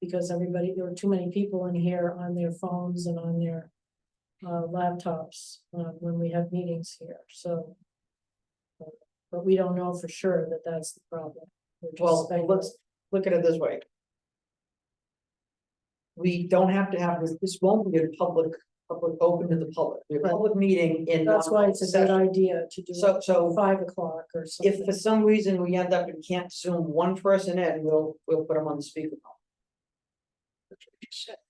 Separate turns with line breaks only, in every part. Because everybody, there were too many people in here on their phones and on their uh, laptops, uh, when we have meetings here, so. But we don't know for sure that that's the problem. We're just
Well,
speculating.
let's look at it this way. We don't have to have this, this won't be a public, public, open to the public, It'll be a
Right.
public meeting in.
That's why it's a good
non-session.
idea to do
So,
it
so
five o'clock or something.
if for some reason we end up and can't zoom one person in, we'll, we'll put them on the speakerphone.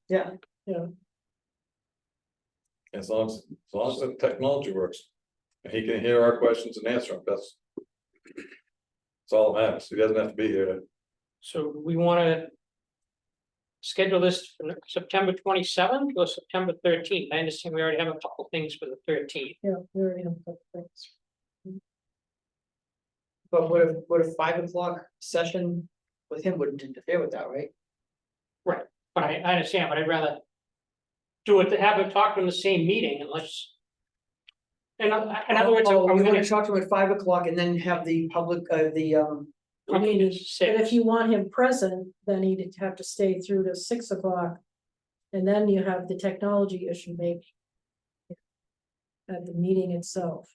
Yeah,
As long as, as long as the technology works, and he can hear our questions and answer them, that's. It's all that matters, he doesn't have to be here, to-
So we wanna. Schedule this for September twenty seventh or September thirteenth, I understand we already have a couple things for the thirteenth,
Yeah, we already have a couple things.
but what if, what if five o'clock session with him wouldn't interfere with that, right?
but I, I understand, but I'd rather. Do it to have it talked in the same meeting unless. In oth- in other words,
Oh,
I'm
We're
gonna,
gonna talk to him at five o'clock and then have the public, uh, the, um,
I mean, it's
But if
six,
you want him present, then he'd have to stay through to six o'clock. And then you have the technology issue maybe. At the meeting itself.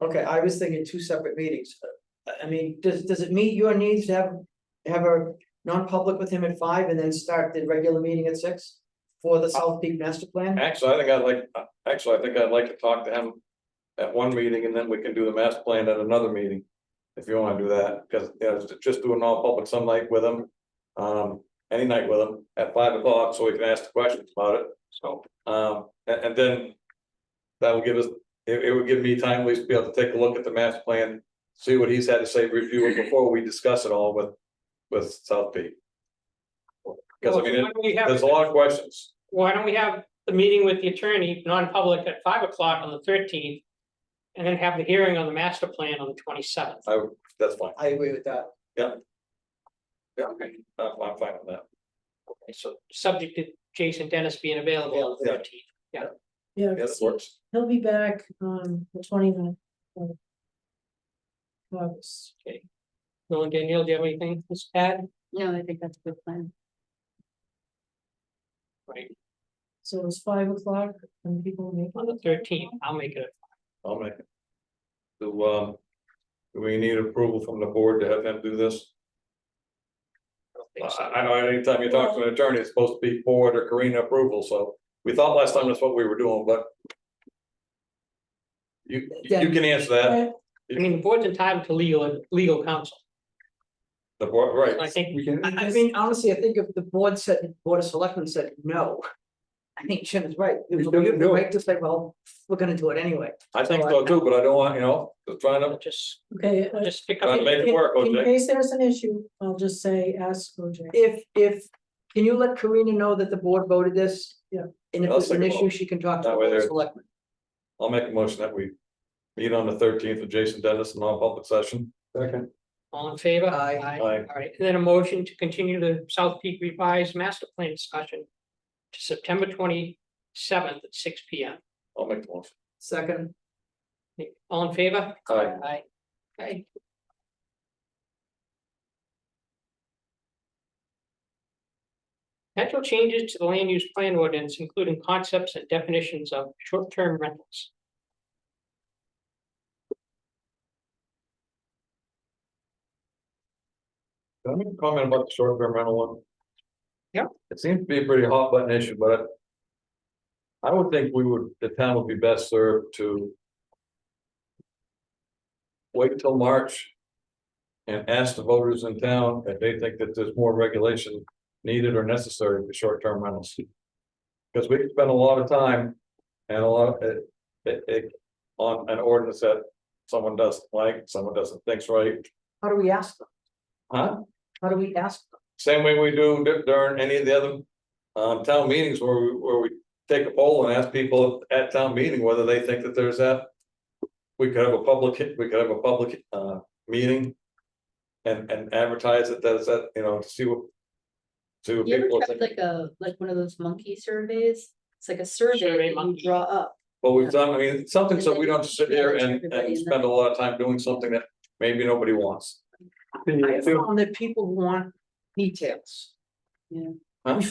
okay, I was thinking two separate meetings. Uh, I- I mean, does, does it meet your needs to have, have a non-public with him at five and then start the regular meeting at six? For the South Peak Master Plan?
actually, I think I'd like, uh, actually, I think I'd like to talk to him. At one meeting, and then we can do the master plan at another meeting, if you wanna do that, because, you know, just- just do an all-public some night with him. Um, any night with him at five o'clock, so we can ask the questions about it,
so,
um, and, and then. That will give us, it, it would give me time, at least to be able to take a look at the master plan, see what he's had to say, review it before we discuss it all with, with South Peak. Because I
Well,
mean,
why
it-
don't we have-
there's a lot of questions,
why don't we have the meeting with the attorney, non-public at five o'clock on the thirteenth? And then have the hearing on the master plan on the twenty seventh.
I, would- that's fine,
I agree with that.
yeah, I'm, I'm fine with that.
So subject to Jason Dennis being available on the
Yeah.
thirteenth.
Yeah,
Yeah, that works,
he'll be back on the 29th of August.
Bill and Danielle, do you have anything to add?
No, I think that's a good plan.
Right,
So it's five o'clock and people make.
on the thirteenth, I'll make it.
I'll make it. So, um, do we need approval from the board to have them do this?
I don't think so.
I, I know, anytime you talk to an attorney, it's supposed to be board or Karina approval, so we thought last time that's what we were doing, but. You, you can answer that,
Right,
I mean, the board's entitled to legal, legal counsel,
the board,
So I
right,
think,
I, I mean, honestly, I think if the board said, Board of Selectmen said no. I think Jim is right. It was a
shouldn't do it.
right to say, well, we're gonna do it anyway.
I think so too, but I don't want, you know, just trying to,
just,
Okay. uh,
just pick
trying
up.
to make it work,
In
OJ.
case there's an issue, I'll just say, ask OJ.
If, if, can you let Karina know that the board voted this?
Yeah.
And if
I'll
there's an
second
issue,
that.
she can talk to the
That way
Board of
there-
Selectmen.
I'll make a motion that we meet on the thirteenth with Jason Dennis in non-public session. Second.
All in favor?
Aye.
Aye.
All right, and then a motion to continue the South Peak revised master plan discussion to September twenty seventh at six P M.
I'll make the motion.
Second,
All in favor?
Aye.
Aye. Okay. Potential changes to the land use plan ordinance, including concepts and definitions of short-term rentals.
Can I make a comment about the short-term rental one?
Yeah.
It seems to be a pretty hot button issue, but. I would think we would, the town would be best served to. Wait till March. And ask the voters in town if they think that there's more regulation needed or necessary for short-term rentals. Because we spend a lot of time and a lot, of it, it, it, on an ordinance that someone doesn't like, someone doesn't think's right,
how do we ask them?
huh?
How do we ask them?
Same way we do di- during any of the other um town meetings where we, where we take a poll and ask people at town meeting whether they think that there's that. We could have a public, he- we could have a public uh meeting. And and advertise it as that, you know, to see what. To
You ever
people,
tried like a, like one of those monkey surveys? It's like a
Survey
survey that you
monkey.
draw up.
but we've done, I mean, something so
And
we
then
don't just sit here and
everybody in
and spend a lot of time doing something that maybe nobody wants.
I found that people want details.
Yeah.